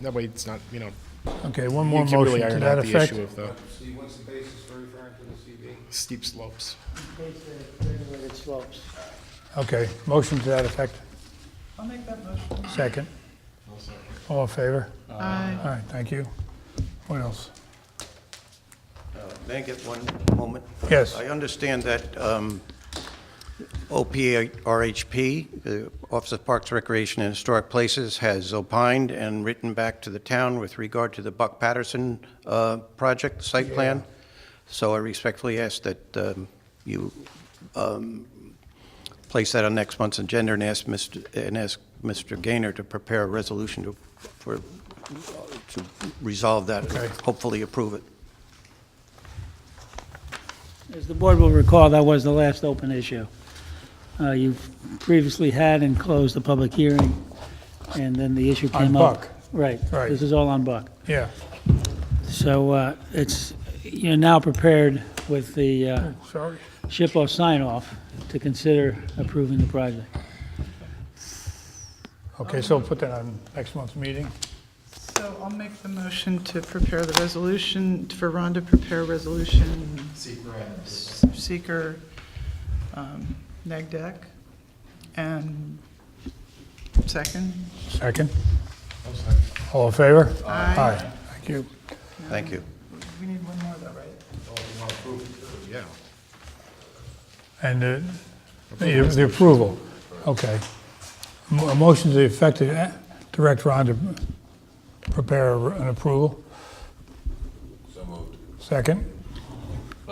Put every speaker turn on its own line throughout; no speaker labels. That way it's not, you know,
Okay, one
you
more
can really
motion to
iron
that
out the
effect.
issue of the
See, what's the basis for referring to the CB?
steep slopes.
Case the regulated slopes.
Okay, motion to that effect.
I'll make that motion.
2nd All in favor?
Aye.
All right, thank you. What else?
May I get one moment?
Yes.
I understand that um, OPRHP, the Office of Parks, Recreation, and Historic Places, has opined and written back to the town with regard to the Buck Patterson uh, project site plan. So I respectfully ask that um, you um, place that on next month's agenda and ask Mr. and ask Mr. Gaynor to prepare a resolution to, for, to resolve that,
Okay.
hopefully approve it.
As the board will recall, that was the last open issue. Uh, You previously had and closed the public hearing, and then the issue
On
came up.
Buck.
Right.
Right.
This is all on Buck.
Yeah,
So uh, it's, you're now prepared with the uh,
sorry.
SHPO sign-off to consider approving the project.
Okay, so put that on next month's meeting.
So I'll make the motion to prepare the resolution, for Ron to prepare resolution. Seeker. Seeker, um, neg deck, and second,
Second? All in favor?
Aye.
Thank you.
Thank you.
we need one more though, right?
Yeah.
And uh, the the approval, okay. Mo- A motion to the effect to eh, direct Ron to prepare an approval? So moved. Second?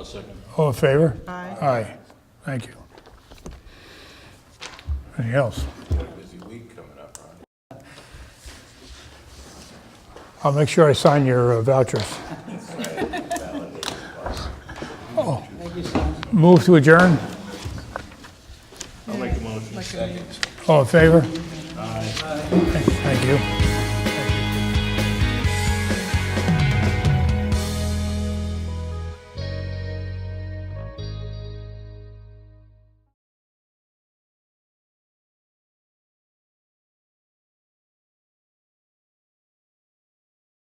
second. All in favor?
Aye.
Aye, thank you. Anything else? I'll make sure I sign your uh, vouchers. Oh. Move to adjourn?
I'll make the motion.
Like a-
All in favor? Aye. Thank you.